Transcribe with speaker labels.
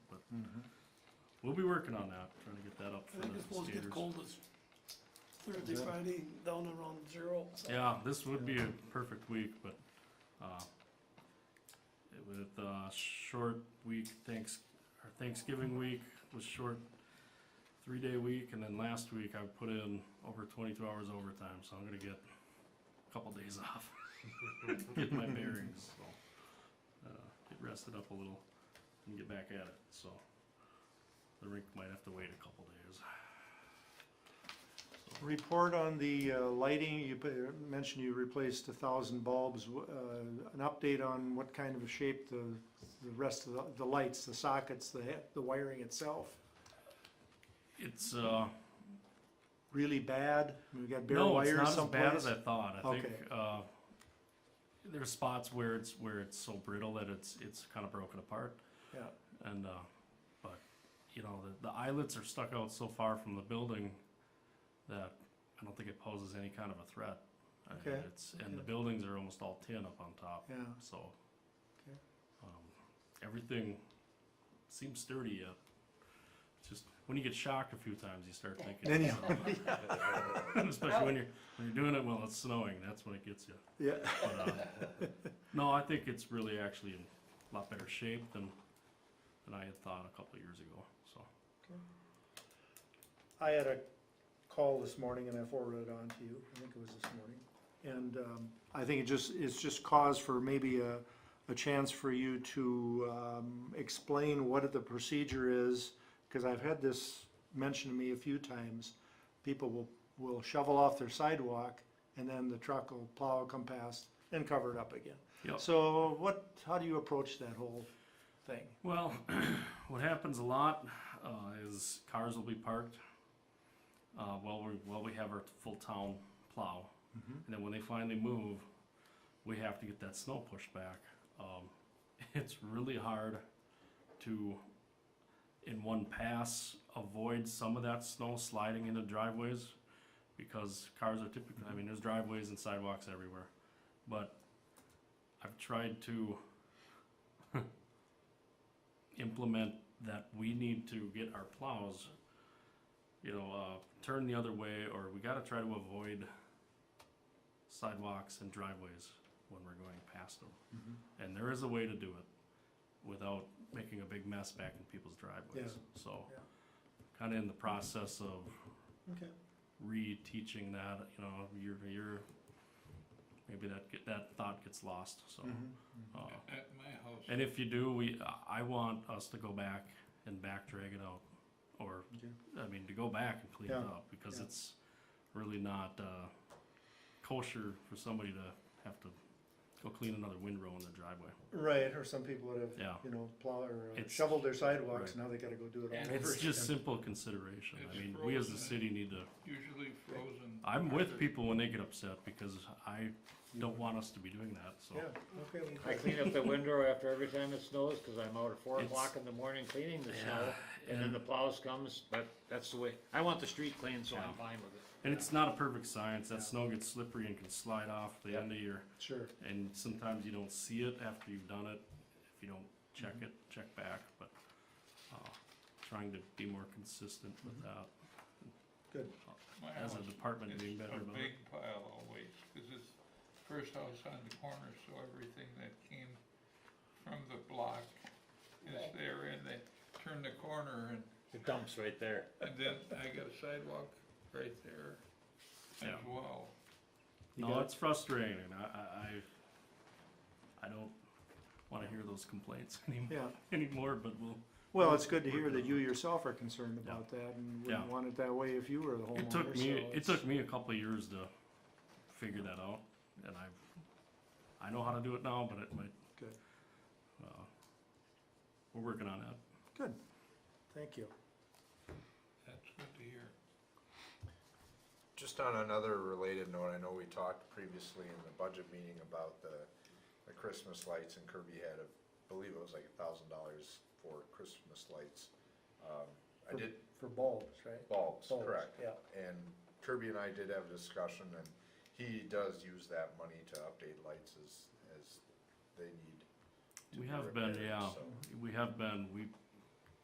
Speaker 1: Mm-hmm.
Speaker 2: We'll be working on that, trying to get that up
Speaker 3: I
Speaker 2: for
Speaker 3: think it's
Speaker 2: the
Speaker 3: supposed to get
Speaker 2: skaters.
Speaker 3: cold as Thursday,
Speaker 1: Yeah.
Speaker 3: Friday, down around zero. so-
Speaker 2: Yeah, this would be a perfect week, but, uh, it- with, uh, short week, thanks, or Thanksgiving week was short, three-day week, and then last week I put in over twenty-two hours overtime, so I'm gonna get a couple days off. Get my bearings, so, uh, get rested up a little and get back at it, so. The rink might have to wait a couple days.
Speaker 1: Report on the uh, lighting, you pa- mentioned you replaced a thousand bulbs, W- uh, an update on what kind of a shape the, the rest of the, the lights, the sockets, the, he- the wiring itself,
Speaker 2: It's, uh,
Speaker 1: really bad? We got bare
Speaker 2: no, it's
Speaker 1: wires
Speaker 2: not
Speaker 1: someplace?
Speaker 2: as bad as I thought. I think
Speaker 1: Okay.
Speaker 2: uh, there's spots where it's where it's so brittle that it's it's kind of broken apart,
Speaker 1: Yeah,
Speaker 2: and uh, but you know the, the eyelets are stuck out so far from the building that I don't think it poses any kind of a threat. I mean,
Speaker 1: Okay.
Speaker 2: It's and the
Speaker 1: Yeah.
Speaker 2: buildings are almost all tin up on top,
Speaker 1: yeah,
Speaker 2: so
Speaker 1: Okay.
Speaker 2: um, everything seems sturdy yet. It's Just when you get shocked a few times, you start thinking.
Speaker 1: Then you-
Speaker 2: "Oh, Especially when you're, when you're doing it while it's snowing, that's when it gets you.
Speaker 1: yeah,
Speaker 2: But, uh, No, I think it's really actually in a lot better shape than, than I had thought a couple of years ago, so.
Speaker 1: I had a call this morning and I forwarded it on to you, I think it was this morning. And um, I think it just, it's just cause for maybe a, a chance for you to um, explain what the procedure is, because I've had this mentioned to me a few times. People will, will shovel off their sidewalk and then the truck will plow, come past and cover it up again.
Speaker 2: Yep.
Speaker 1: So what, how do you approach that whole thing?
Speaker 2: Well, what happens a lot, uh, is cars will be parked, uh, while we, while we have our full town plow. And then when they finally move, we have to get that snow pushed back. Um, it's really hard to, in one pass, avoid some of that snow sliding into driveways because cars are typically, I mean, there's driveways and sidewalks everywhere. But I've tried to implement that we need to get our plows, you know, uh, turn the other way, or we gotta try to avoid sidewalks and driveways when we're going past them. And there is a way to do it without making a big mess back in people's driveways, so.
Speaker 1: Yeah.
Speaker 2: Kinda in the process of
Speaker 1: Okay.
Speaker 2: re-teaching that, you know, year to year, maybe that, get- that thought gets lost, so.
Speaker 1: Mm-hmm.
Speaker 2: uh,
Speaker 4: At my house,
Speaker 2: and if you do, we, I want us to go back and back drag it out, or,
Speaker 1: Okay.
Speaker 2: I mean, to go back and clean it
Speaker 1: Yeah,
Speaker 2: up, because
Speaker 1: yeah.
Speaker 2: it's really not, uh, kosher for somebody to have to go clean another windrow in their driveway.
Speaker 1: Right, or some people would have,
Speaker 2: Yeah.
Speaker 1: you know, plow or uh,
Speaker 2: It's-
Speaker 1: shoveled their sidewalks,
Speaker 2: right.
Speaker 1: now they gotta go do it all
Speaker 4: And
Speaker 1: over.
Speaker 2: It's just
Speaker 1: again.
Speaker 2: simple consideration, I
Speaker 4: It's
Speaker 2: mean, we as a
Speaker 4: frozen.
Speaker 2: city need to,
Speaker 4: usually frozen.
Speaker 2: I'm with
Speaker 4: either.
Speaker 2: people when they get upset, because I don't want us to be doing that, so.
Speaker 1: Yeah, okay.
Speaker 5: I clean up the window after every time it snows, cause I'm out at four
Speaker 2: It's-
Speaker 5: o'clock in the morning cleaning the snow,
Speaker 2: Yeah,
Speaker 5: and then
Speaker 2: and-
Speaker 5: the plows comes, but that's the way, I want the street clean, so I'm fine with it.
Speaker 2: And it's not a perfect science, that snow gets slippery and can slide off the end of your
Speaker 1: Sure,
Speaker 2: and sometimes you don't see it after you've done it, if you don't check it, check back, but, uh, trying to be more consistent with
Speaker 1: Mm-hmm.
Speaker 2: that,
Speaker 4: My
Speaker 2: as a
Speaker 4: house,
Speaker 2: department
Speaker 4: it's
Speaker 2: being better
Speaker 4: a
Speaker 2: about it.
Speaker 4: big pile always, cause it's first house on the corner, so everything that came from the block is
Speaker 3: Right.
Speaker 4: there and they turn the corner and,
Speaker 5: The dump's right there.
Speaker 4: and then I got a sidewalk right there as
Speaker 2: Yeah.
Speaker 4: well.
Speaker 1: You
Speaker 2: No,
Speaker 1: got it.
Speaker 2: it's frustrating, I, I, I, I don't wanna hear those complaints anymore,
Speaker 1: yeah.
Speaker 2: anymore, but we'll,
Speaker 1: Well, it's good to hear that you yourself are concerned about that and wouldn't
Speaker 2: Yeah.
Speaker 1: want it that way if you were the homeowner.
Speaker 2: it took me,
Speaker 1: so
Speaker 2: it took me a couple of years to figure that out, and I've, I know how to do it now, but it might.
Speaker 1: Good.
Speaker 2: Uh, we're working on that.
Speaker 1: Good, thank you.
Speaker 4: That's good to hear.
Speaker 6: Just on another related note, I know we talked previously in the budget meeting about the, the Christmas lights and Kirby had, a- I believe it was like a thousand dollars for Christmas lights. Um, I
Speaker 1: For-
Speaker 6: did
Speaker 1: For bulbs, right?
Speaker 6: bulbs,
Speaker 1: Bulbs,
Speaker 6: correct.
Speaker 1: Yeah,
Speaker 6: And Kirby and I did have a discussion and he does use that money to update lights as, as they need. to
Speaker 2: We
Speaker 6: be
Speaker 2: have been,
Speaker 6: repaired,
Speaker 2: yeah.
Speaker 6: so.
Speaker 2: We have been, we